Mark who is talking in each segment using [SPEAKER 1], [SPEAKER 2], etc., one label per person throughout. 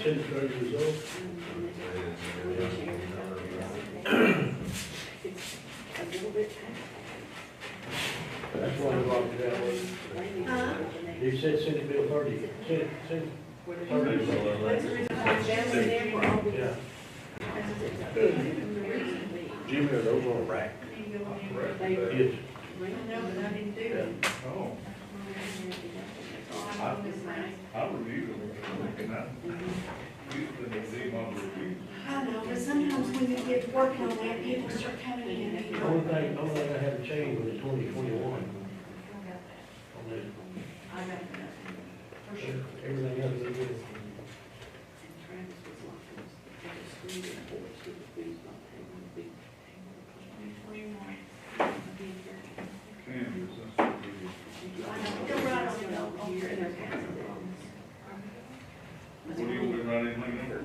[SPEAKER 1] City treasurer's office. That's why we locked it that way. You said city bill thirty, city, city, yeah.
[SPEAKER 2] Jimmy, are those on rack?
[SPEAKER 1] Yes,
[SPEAKER 3] Oh, I reviewed them, and I, usually they do my review.
[SPEAKER 4] I know, but sometimes when you get working on that, people start coming in and you
[SPEAKER 1] the
[SPEAKER 4] know.
[SPEAKER 1] only thing, the only thing I haven't changed was twenty twenty-one. On this, everything else is good.
[SPEAKER 3] Canvas, that's what we do. What do you want to write in there?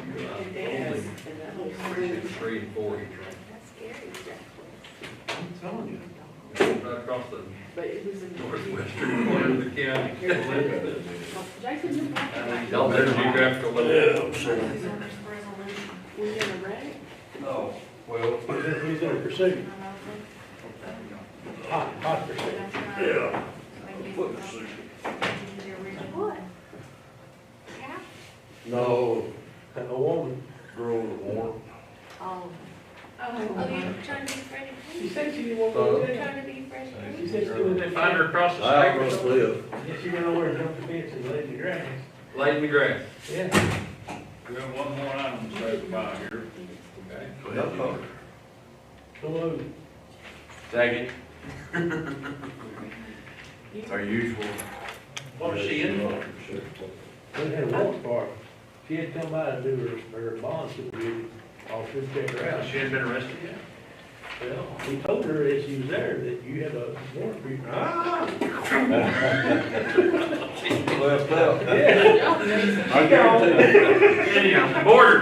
[SPEAKER 5] Only section three and four here.
[SPEAKER 2] I'm telling you.
[SPEAKER 5] Right across the northwestern corner of the county. Y'all better geographical. location. No,
[SPEAKER 6] Oh,
[SPEAKER 5] well,
[SPEAKER 1] He's in a pursuit, hot, hot pursuit.
[SPEAKER 2] Yeah.
[SPEAKER 4] What?
[SPEAKER 2] No,
[SPEAKER 1] And a woman,
[SPEAKER 2] girl with warrant.
[SPEAKER 4] Oh.
[SPEAKER 5] um,
[SPEAKER 6] Oh, you're trying to be Freddie
[SPEAKER 7] She
[SPEAKER 6] Prinze?
[SPEAKER 7] said she didn't want
[SPEAKER 5] Uh,
[SPEAKER 7] to
[SPEAKER 6] You're
[SPEAKER 7] do that.
[SPEAKER 6] trying to be Freddie
[SPEAKER 1] she
[SPEAKER 6] Prinze?
[SPEAKER 1] said she was in
[SPEAKER 5] find her across
[SPEAKER 2] I
[SPEAKER 5] the
[SPEAKER 2] almost
[SPEAKER 5] street.
[SPEAKER 2] live.
[SPEAKER 1] She went over and jumped the fence and laid in the grass.
[SPEAKER 5] Lay in the grass.
[SPEAKER 1] Yeah.
[SPEAKER 3] We have one more item to say about here.
[SPEAKER 1] Hello.
[SPEAKER 2] Second. Our usual.
[SPEAKER 5] What was she in for?
[SPEAKER 1] We had a warrant for her. She had come by and do her, her bond supervision, officer check her out.
[SPEAKER 5] She hadn't been arrested yet?
[SPEAKER 1] Well, we told her as she was there that you have a warrant for you. Ah!
[SPEAKER 2] Left out.
[SPEAKER 1] Yeah.
[SPEAKER 2] I guarantee
[SPEAKER 5] Anyhow, border.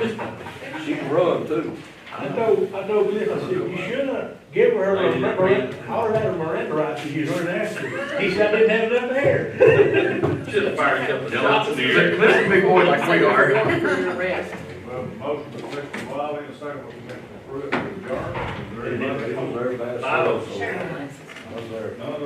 [SPEAKER 2] you, she can run too.
[SPEAKER 1] I told, I told Cliff, I said, you should have given her a Miranda, I would have had a Miranda right if you run after her. He said, I didn't have enough hair.
[SPEAKER 5] Should have fired a couple of
[SPEAKER 2] Yeah,
[SPEAKER 5] shots.
[SPEAKER 2] that's near. That's a big boy like we are.
[SPEAKER 3] Well, the motion by Commissioner Wiley, and second by Commissioner Pruitt, to adjourn. Very much. No, there- there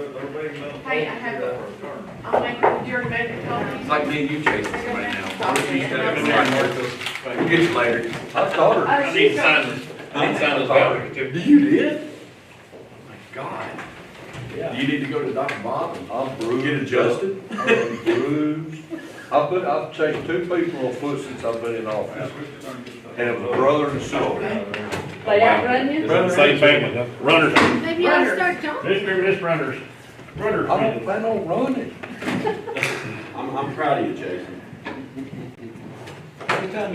[SPEAKER 3] being none.
[SPEAKER 6] Hey, I have a-
[SPEAKER 3] Adjourn.
[SPEAKER 6] I'll make Oh, your favorite
[SPEAKER 2] It's
[SPEAKER 6] coffee.
[SPEAKER 2] like me and you chasing somebody now. We're used to having somebody. We'll get you later. I caught her.
[SPEAKER 6] Oh, she's got-
[SPEAKER 2] I need sign You did? Oh my God.
[SPEAKER 1] Yeah.
[SPEAKER 2] You need to go to Dr. Bob and
[SPEAKER 8] I'm bruised.
[SPEAKER 2] Get adjusted.
[SPEAKER 8] up. I'm bruised. I've been, I've taken two people on foot since I've been in office,
[SPEAKER 3] Ask Richard Turner just to-
[SPEAKER 8] and it was a brother and sister.
[SPEAKER 7] They outrun you?
[SPEAKER 2] Same family,
[SPEAKER 7] Runners.
[SPEAKER 6] Maybe I'll start jumping.
[SPEAKER 7] This, this runners. Runners.
[SPEAKER 8] I don't plan on running.
[SPEAKER 2] I'm, I'm proud of you, Jason.
[SPEAKER 1] Every time